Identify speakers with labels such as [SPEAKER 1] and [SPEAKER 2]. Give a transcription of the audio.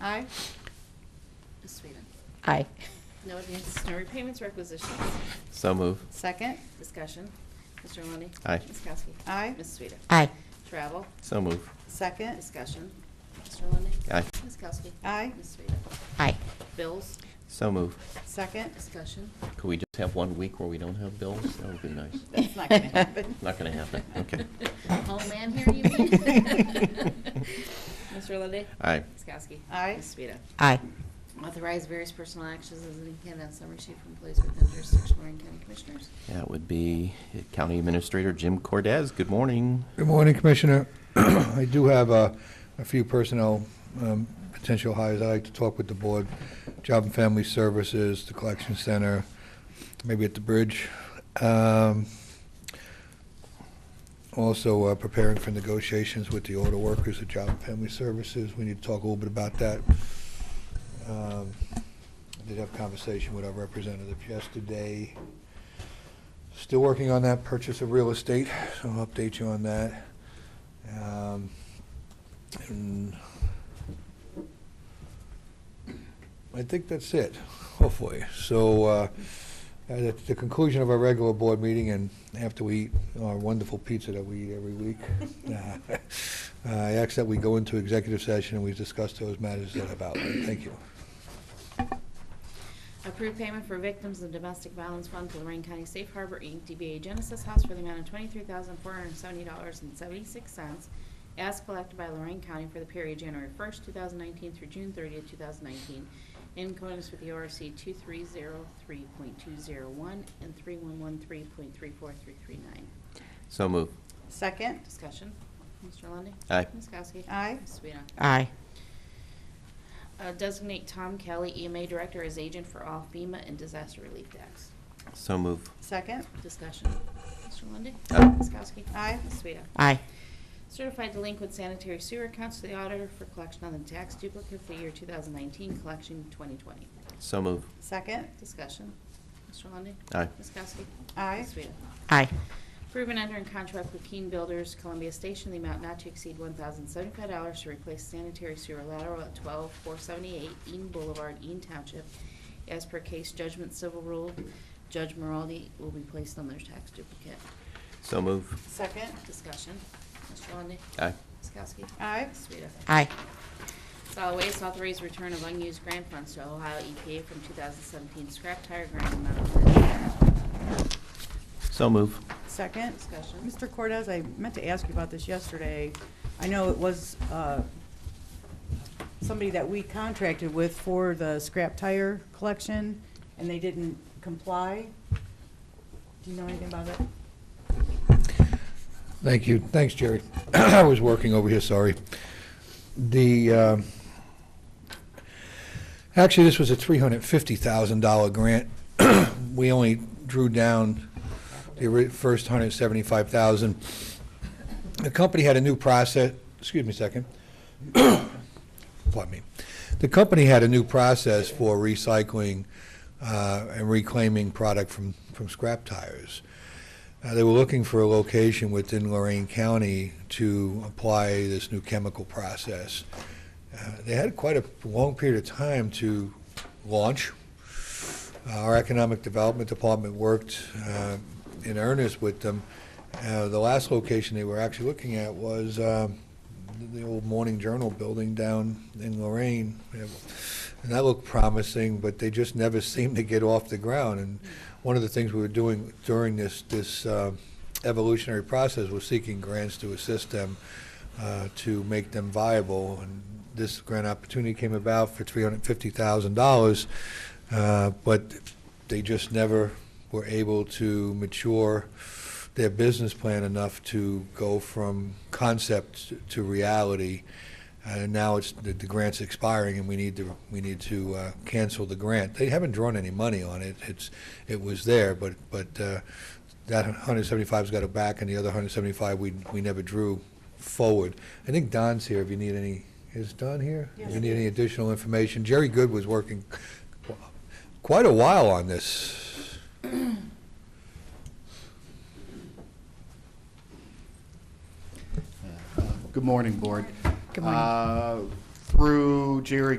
[SPEAKER 1] Aye.
[SPEAKER 2] Ms. Sweden.
[SPEAKER 3] Aye.
[SPEAKER 2] No advances, no repayments, requisitions.
[SPEAKER 4] So move.
[SPEAKER 1] Second.
[SPEAKER 2] Discussion. Mr. Lundey.
[SPEAKER 4] Aye.
[SPEAKER 2] Ms. Kowski.
[SPEAKER 1] Aye.
[SPEAKER 2] Ms. Sweden.
[SPEAKER 3] Aye.
[SPEAKER 2] Travel.
[SPEAKER 4] So move.
[SPEAKER 1] Second.
[SPEAKER 2] Discussion. Mr. Lundey.
[SPEAKER 4] Aye.
[SPEAKER 2] Ms. Kowski.
[SPEAKER 1] Aye.
[SPEAKER 2] Ms. Sweden.
[SPEAKER 3] Aye.
[SPEAKER 2] Bills.
[SPEAKER 4] So move.
[SPEAKER 1] Second.
[SPEAKER 2] Discussion.
[SPEAKER 4] Could we just have one week where we don't have bills? That would be nice.
[SPEAKER 1] That's not gonna happen.
[SPEAKER 4] Not gonna happen, okay.
[SPEAKER 2] Homeland here, you mean? Mr. Lundey.
[SPEAKER 4] Aye.
[SPEAKER 2] Ms. Kowski.
[SPEAKER 1] Aye.
[SPEAKER 2] Ms. Sweden.
[SPEAKER 3] Aye.
[SPEAKER 2] Authorize various personal actions as indicated on summary sheet from employees within jurisdiction of Lorraine County Commissioners.
[SPEAKER 4] That would be County Administrator Jim Cordez. Good morning.
[SPEAKER 5] Good morning, Commissioner. I do have uh, a few personnel um, potential hires. I'd like to talk with the board, Job and Family Services, the Collection Center, maybe at the bridge. Um, Also, uh, preparing for negotiations with the auto workers at Job and Family Services. We need to talk a little bit about that. Um, I Did have a conversation with our representative yesterday. Still working on that purchase of real estate, so I'll update you on that. Um, and I think that's it, hopefully. So, uh, at the conclusion of our regular board meeting and after we eat our wonderful pizza that we eat every week, uh, I ask that we go into executive session and we discuss those matters that I've outlined. Thank you.
[SPEAKER 2] Approved payment for victims of domestic violence fund to Lorraine County Safe Harbor, Inc., DBA Genesis House for the amount of twenty-three thousand four hundred and seventy dollars and seventy-six cents as collected by Lorraine County for the period January first, two thousand nineteen through June thirtieth, two thousand nineteen, in accordance with the ORC two-three-zero-three-point-two-zero-one and three-one-one-three-point-three-four-three-three-nine.
[SPEAKER 4] So move.
[SPEAKER 1] Second.
[SPEAKER 2] Discussion. Mr. Lundy.
[SPEAKER 4] Aye.
[SPEAKER 2] Ms. Kowski?
[SPEAKER 1] Aye.
[SPEAKER 2] Ms. Swita?
[SPEAKER 3] Aye.
[SPEAKER 2] Uh, Designate Tom Kelly, EMA Director, as agent for all FEMA and disaster relief acts.
[SPEAKER 4] So move.
[SPEAKER 1] Second.
[SPEAKER 2] Discussion. Mr. Lundy.
[SPEAKER 4] Aye.
[SPEAKER 2] Ms. Kowski?
[SPEAKER 1] Aye.
[SPEAKER 2] Ms. Swita?
[SPEAKER 3] Aye.
[SPEAKER 2] Certified delinquent sanitary sewer accounts to the auditor for collection on the tax duplicate for the year 2019, collection 2020.
[SPEAKER 4] So move.
[SPEAKER 1] Second.
[SPEAKER 2] Discussion. Mr. Lundy.
[SPEAKER 4] Aye.
[SPEAKER 2] Ms. Kowski?
[SPEAKER 1] Aye.
[SPEAKER 2] Ms. Swita?
[SPEAKER 3] Aye.
[SPEAKER 2] Approve and enter in contract with Keen Builders Columbia Station, the amount not to exceed one thousand seventy-five dollars to replace sanitary sewer lateral at twelve four seventy-eight Eaton Boulevard, Eaton Township. As per case judgment civil rule, Judge Moraldi will be placed on their tax duplicate.
[SPEAKER 4] So move.
[SPEAKER 1] Second.
[SPEAKER 2] Discussion. Mr. Lundey.
[SPEAKER 4] Aye.
[SPEAKER 2] Ms. Kowski.
[SPEAKER 1] Aye.
[SPEAKER 2] Ms. Sueda.
[SPEAKER 3] Aye.
[SPEAKER 2] Solid Waste authorized return of unused grant funds to Ohio EPA from two thousand seventeen scrap tire grant amount of ten thousand.
[SPEAKER 4] So move.
[SPEAKER 1] Second.
[SPEAKER 2] Discussion.
[SPEAKER 1] Mr. Cordez, I meant to ask you about this yesterday. I know it was uh, somebody that we contracted with for the scrap tire collection, and they didn't comply. Do you know anything about it?
[SPEAKER 5] Thank you. Thanks, Jerry. I was working over here, sorry. The, um, actually, this was a $350,000 grant. We only drew down the ori- first 175,000. The company had a new process, excuse me a second. Pardon me. The company had a new process for recycling uh, and reclaiming product from from scrap tires. Uh, They were looking for a location within Lorraine County to apply this new chemical process. Uh, They had quite a long period of time to launch. Uh, Our Economic Development Department worked uh, in earnest with them. Uh, The last location they were actually looking at was um, the old Morning Journal building down in Lorraine. And that looked promising, but they just never seemed to get off the ground. And one of the things we were doing during this, this uh, evolutionary process was seeking grants to assist them uh, to make them viable. And this grant opportunity came about for $350,000, uh, but they just never were able to mature their business plan enough to go from concept to reality. And now it's, the the grant's expiring and we need to, we need to uh, cancel the grant. They haven't drawn any money on it. It's, it was there, but, but uh, that 175's got it back and the other 175 we, we never drew forward. I think Don's here if you need any, is Don here? If you
[SPEAKER 1] Yes.
[SPEAKER 5] need any additional information. Jerry Good was working quite a while on this.
[SPEAKER 6] Good morning, Board.
[SPEAKER 3] Good morning.
[SPEAKER 6] Uh, Through Jerry